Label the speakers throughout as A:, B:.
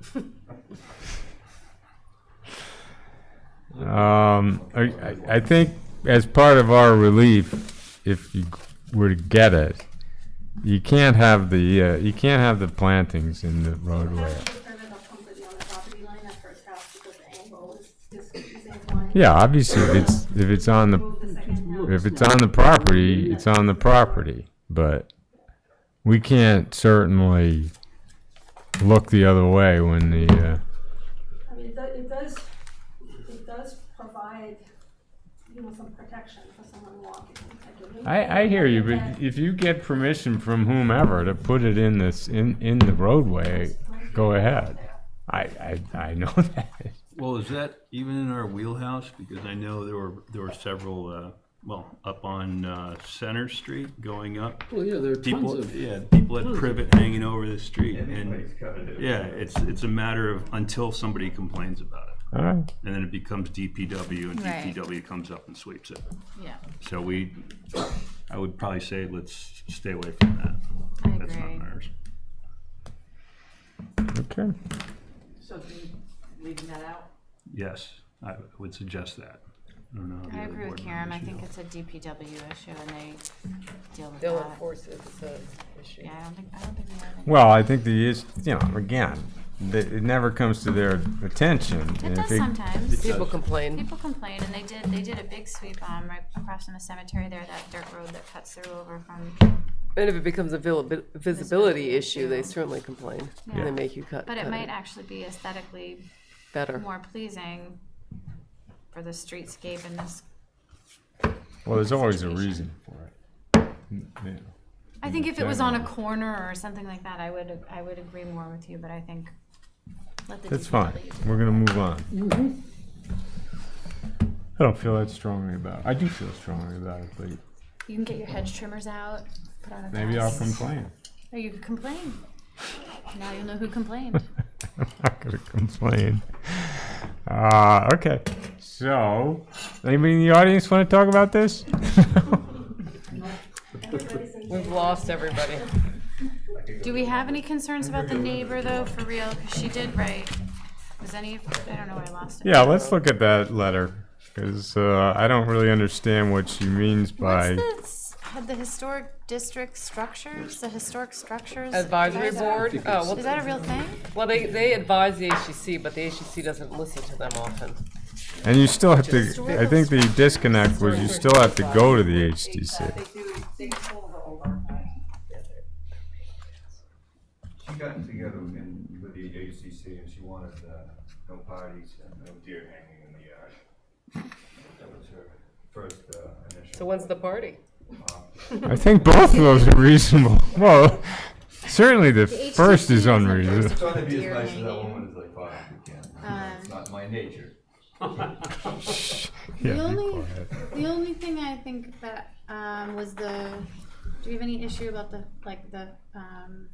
A: Please.
B: Um, I, I- I think as part of our relief, if you were to get it, you can't have the, uh, you can't have the plantings in the roadway.
C: That's the permit that's completely on the property line, that first house, because the angle is, is confusing one.
B: Yeah, obviously, if it's, if it's on the,
C: Move the second house.
B: if it's on the property, it's on the property, but we can't certainly look the other way when the, uh,
C: I mean, it do- it does, it does provide, you know, some protection for someone walking. like,
B: I, I hear you,
C: Yeah.
B: but if you get permission from whomever to put it in this, in, in the roadway, go ahead. I, I, I know that.
D: Well, is that even in our wheelhouse? Because I know there were, there were several, uh, well, up on, uh, Center Street going up.
E: Well, Oh, yeah, there are tons
D: People,
E: of,
D: yeah, people at privet hanging over the street and,
A: Everybody's covered it.
D: yeah, it's, it's a matter of until somebody complains about it.
B: All right.
D: And then it becomes DPW and
F: Right.
D: DPW comes up and sweeps it.
F: Yeah,
D: So we, I would probably say let's stay away from that.
F: I
D: That's not
F: agree.
D: ours.
B: Okay.
G: So do we leaving that out?
D: Yes, I would suggest that. I don't know. how the
F: I
D: other
F: agree with
D: board
F: Karen, I
D: members
F: think
D: feel.
F: it's a DPW issue and they deal with
G: They'll
F: that.
G: enforce it, it's a issue.
F: uh, Yeah, I don't think, I don't think we have any.
B: Well, I think the is, you know, again, that it never comes to their attention.
F: It
B: and if
F: does sometimes.
G: People complain.
F: People complain and they did, they did a big sweep, um, right across from the cemetery there, that dirt road that cuts through over from,
G: And if it becomes a vil- visibility issue, they certainly complain. And
B: Yeah.
G: they make you cut.
F: but it
G: cut
F: might actually be aesthetically
G: Better.
F: more pleasing for the streetscape and this.
B: Well, there's always a reason for it. Mm, Yeah.
F: I think if it was on a corner or something like that, I would, I would agree more with you, but I think let the
B: That's fine.
F: DPW
B: We're gonna move on.
F: Mm-hmm.
B: I don't feel that strongly about it. I do feel strongly about it, but
F: You can get your hedge trimmers out, put on a
B: maybe I'll
F: vest.
B: complain.
F: Or you could complain. Now you'll know who complained.
B: I'm not gonna complain. Uh, okay. So, anybody in the audience want to talk about this?
C: Everybody's in
G: We've lost everybody.
F: Do we have any concerns about the neighbor though, for real? 'Cause she did write. Was any? I don't know. where I lost it.
B: yeah, let's look at that letter because uh, I don't really understand what she means
F: What's
B: by.
F: the s- had the historic district structures? The historic structures
G: Advisory
F: Is that-
G: board, oh,
F: Is
G: well,
F: that a real thing?
G: well, they, they advise the HCC, but the HCC doesn't listen to them often.
B: And you still have to. I think the disconnect was you still have to go to the
H: They
B: HDC.
H: do, they pull the over.
A: She got together in, with the HCC and she wanted, uh, no parties and no deer hanging in the yard. That was her first, uh, initial.
G: So when's the party?
B: I think both of those are reasonable. Well, certainly the
F: HDC
B: first is
F: is on
B: unreasonable.
F: Thursday.
A: Trying to be
F: Deer
A: as nice as that
F: hanging.
A: woman as I possibly can. You know, It's
F: Um,
A: not my nature.
B: Yeah,
F: The
B: be
F: only-
B: quiet.
F: The only thing I think that um, was the. Do you have any issue about the like the um,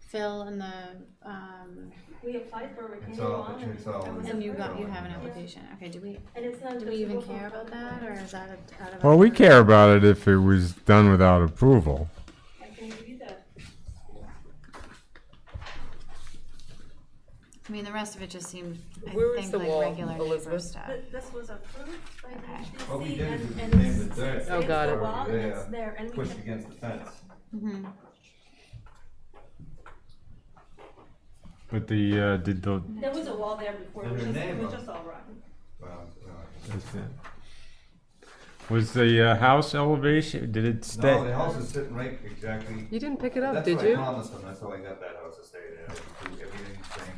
F: Phil and the um,
C: We applied for a
A: It's
C: renewal
A: all,
C: on
A: it's
C: it.
A: all.
C: And
F: and you got you
A: it's all-
F: have an application? Okay, do we
C: and it's not
F: do we even
C: visible
F: care
C: from-
F: about that or is that a- out of? our
B: Well, we
F: purview?
B: care about it if it was done without approval.
C: I can do that.
F: I mean, the rest of it just seemed, I
G: Where is
F: think,
G: the
F: like
G: wall,
F: regular neighbor
G: Elizabeth?
F: stuff.
C: Th- This was approved by
F: Okay.
C: the
A: What we
C: HDC
A: did is
C: and,
A: we
C: and
A: named
C: it's,
A: it there.
C: it's
G: Oh, got
C: the
G: it.
C: wall and
A: Yeah.
C: it's there and we
A: Pushed
C: can,
A: against the fence.
F: Mm-hmm.
B: But the, uh, did the,
C: there was a wall there before, it
A: And
C: was
A: her
C: just, it
A: name
C: was
A: on-
C: just all rotten.
A: Well, uh,
B: was the- was the uh, house elevation, did it
A: No, the
B: stay?
A: house is sitting right exactly.
G: You didn't pick it up,
A: That's
G: did
A: what I
G: you?
A: promised them, that's how I got that house to stay there, do everything the same,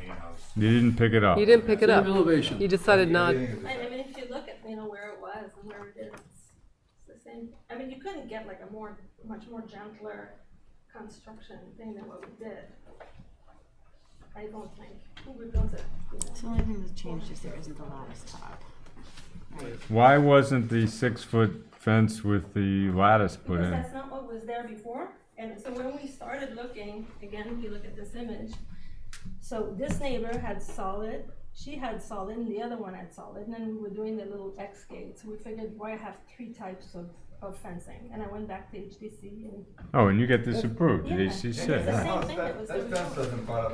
A: main house.
B: You didn't pick it up?
G: You didn't pick it up.
E: elevation.
G: You decided not.
A: Everything is the
C: And I
A: same.
C: mean, if you look at, you know, where it was and where it is, it's the same, I mean, you couldn't get like a more, much more gentler construction thing than what we did. I don't think, who would build it, you know?
F: The only thing that's changed is there isn't the lattice top.
B: Why wasn't the six-foot fence with the lattice put
C: Because
B: in?
C: that's not what was there before, and so when we started looking, again, if you look at this image, so this neighbor had solid, she had solid, and the other one had solid, and then we were doing the little X gates, we figured, why have three types of, of fencing, and I went back to HDC and
B: Oh, and you get this approved, did
C: Yeah.
B: HCC?
A: It's the
C: Yeah.
A: same
C: thing that was
A: That
C: there
A: fence doesn't bother